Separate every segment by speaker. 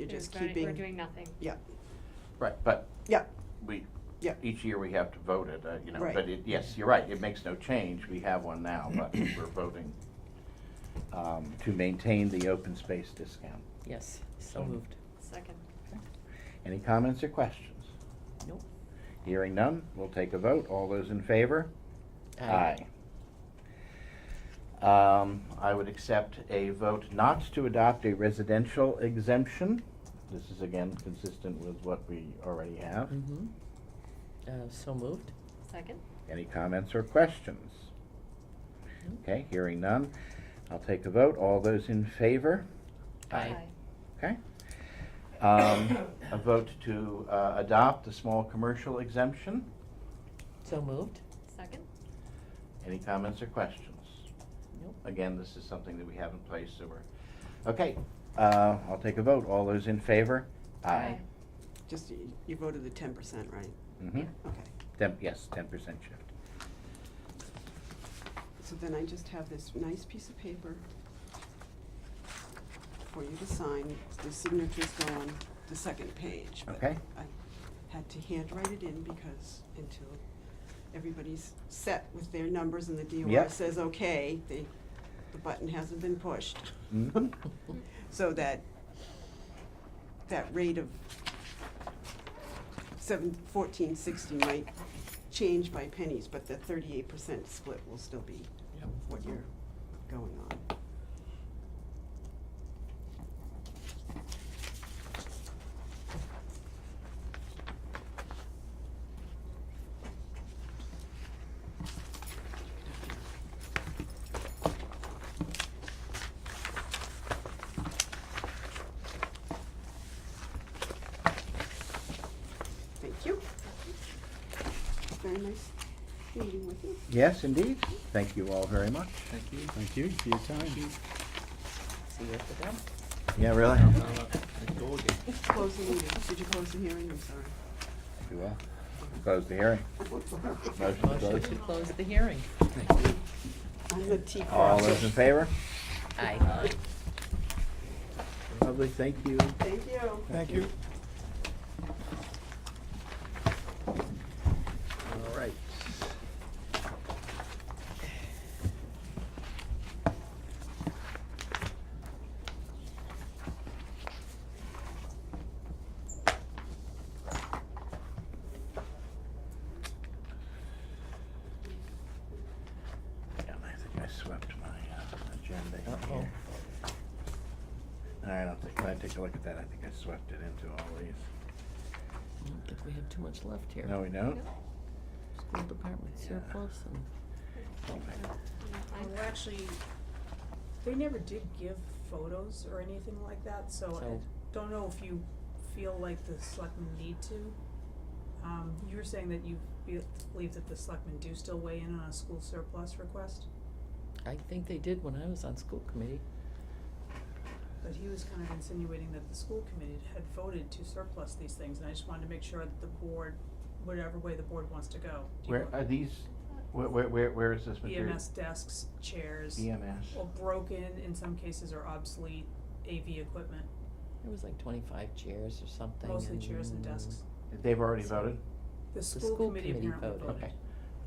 Speaker 1: You're just
Speaker 2: We're voting- We're
Speaker 1: keeping,
Speaker 2: doing nothing.
Speaker 1: yeah,
Speaker 3: Right, but
Speaker 1: yeah,
Speaker 3: we,
Speaker 1: yeah,
Speaker 3: each year we have to vote it, uh, you know,
Speaker 1: Right.
Speaker 3: but it, yes, you're right, it makes no change, we have one now, but we're voting um, to maintain the open space discount.
Speaker 4: Yes, so
Speaker 3: So-
Speaker 4: moved.
Speaker 2: Second.
Speaker 3: Any comments or questions?
Speaker 4: Nope.
Speaker 3: Hearing none, we'll take a vote, all those in favor? Aye. Um, I would accept a vote not to adopt a residential exemption. This is again consistent with what we already have.
Speaker 4: Mm-hmm. Uh, so moved.
Speaker 2: Second.
Speaker 3: Any comments or questions?
Speaker 4: Nope.
Speaker 3: Okay, hearing none, I'll take a vote. All those in favor?
Speaker 4: Aye.
Speaker 3: Okay. Um, A vote to uh, adopt the small commercial exemption.
Speaker 4: So moved.
Speaker 2: Second.
Speaker 3: Any comments or questions?
Speaker 4: Nope.
Speaker 3: Again, this is something that we have in place, so we're, okay, uh, I'll take a vote. All those in favor?
Speaker 2: Aye.
Speaker 1: just, y- you voted the ten percent, right?
Speaker 3: Mhm.
Speaker 1: Okay,
Speaker 3: Ten, yes, ten percent shift.
Speaker 1: so then I just have this nice piece of paper for you to sign, the signatures go on the second page. but
Speaker 3: Okay.
Speaker 1: I had to handwrite it in because until everybody's set with their numbers and the DOR
Speaker 3: Yep.
Speaker 1: says, okay, the, the button hasn't been pushed.
Speaker 3: Mhm.
Speaker 1: So that, that rate of seven, fourteen sixty might change by pennies, but the thirty-eight percent split will still be
Speaker 3: Yep.
Speaker 1: what you're going on. Thank you. Very nice meeting with you.
Speaker 3: Yes, indeed. Thank you all very much.
Speaker 5: Thank you. Thank you for your time.
Speaker 4: See you at the dump.
Speaker 3: Yeah, really?
Speaker 1: Close the meeting. Did you close the hearing? I'm sorry.
Speaker 3: You will. Close the hearing. Motion to
Speaker 4: Motion
Speaker 3: close.
Speaker 4: to close the hearing.
Speaker 1: I'm the tea
Speaker 3: All
Speaker 1: crowd.
Speaker 3: those in favor?
Speaker 4: Aye.
Speaker 3: Lovely, thank you.
Speaker 1: Thank you.
Speaker 5: Thank you.
Speaker 3: All right. Yeah, I think I swept my uh, agenda in
Speaker 4: Uh-oh.
Speaker 3: here. All right, I'll take, can I take a look at that? I think I swept it into all these.
Speaker 4: I don't think we have too much left here.
Speaker 3: No, we don't?
Speaker 4: School department
Speaker 3: Yeah.
Speaker 4: surplus and,
Speaker 6: Well, actually, they never did give photos or anything like that, so
Speaker 4: So-
Speaker 6: I don't know if you feel like the selectmen need to. Um, you were saying that you feel, believe that the selectmen do still weigh in on a school surplus request,
Speaker 4: I think they did when I was on school committee.
Speaker 6: but he was kind of insinuating that the school committee had voted to surplus these things, and I just wanted to make sure that the board, whatever way the board wants to go. do you
Speaker 3: Where
Speaker 6: want
Speaker 3: are these, where, where, where, where is this material? E
Speaker 6: EMS desks, chairs,
Speaker 3: EMS.
Speaker 6: or broken in some cases or obsolete AV equipment,
Speaker 4: There was like twenty-five chairs or something
Speaker 6: mostly chairs
Speaker 4: and-
Speaker 6: and desks.
Speaker 3: They've already voted?
Speaker 6: The
Speaker 4: school
Speaker 6: school committee
Speaker 4: committee
Speaker 6: apparently
Speaker 4: voted.
Speaker 6: voted.
Speaker 3: Okay.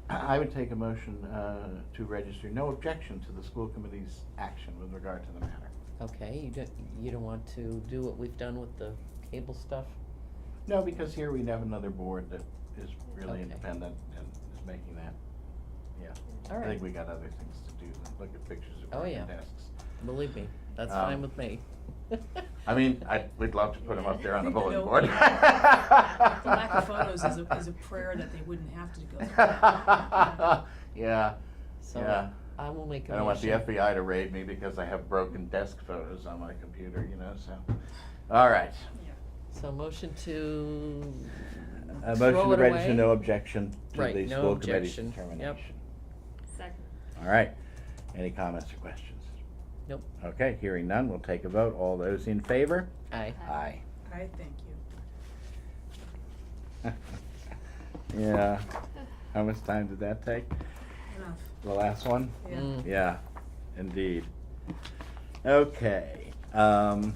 Speaker 3: I I would take a motion, uh, to register no objection to the school committee's action with regard to the matter.
Speaker 4: Okay, you don't, you don't want to do what we've done with the cable stuff?
Speaker 3: No, because here we have another board that is really
Speaker 4: Okay.
Speaker 3: independent and is making that, yeah.
Speaker 4: All
Speaker 3: I think
Speaker 4: right.
Speaker 3: we got other things to do than look at pictures of
Speaker 4: Oh,
Speaker 3: broken
Speaker 4: yeah.
Speaker 3: desks.
Speaker 4: Believe me, that's
Speaker 3: Um,
Speaker 4: fine with me.
Speaker 3: I mean, I, we'd love to put them up there on the
Speaker 6: I think
Speaker 3: bulletin
Speaker 6: the
Speaker 3: board.
Speaker 6: no- The lack of photos is a, is a prayer that they wouldn't have to go through that.
Speaker 3: Yeah,
Speaker 4: So
Speaker 3: Yeah.
Speaker 4: I will make a motion.
Speaker 3: I don't want the E. FBI to raid me because I have broken desk photos on my computer, you know, so. All right.
Speaker 4: So motion to
Speaker 3: A
Speaker 4: Throw
Speaker 3: Uh, motion to
Speaker 4: it
Speaker 3: register
Speaker 4: away?
Speaker 3: no objection to
Speaker 4: Right,
Speaker 3: the
Speaker 4: no
Speaker 3: school committee's
Speaker 4: objection.
Speaker 3: determination.
Speaker 4: Yep.
Speaker 2: Second.
Speaker 3: All right. Any comments or questions?
Speaker 4: Nope.
Speaker 3: Okay, hearing none, we'll take a vote. All those in favor?
Speaker 4: Aye.
Speaker 3: Aye.
Speaker 6: I thank you.
Speaker 3: Yeah. How much time did that take?
Speaker 6: Enough.
Speaker 3: The last one?
Speaker 6: Yeah.
Speaker 4: Mm.
Speaker 3: Yeah, indeed. Okay, um,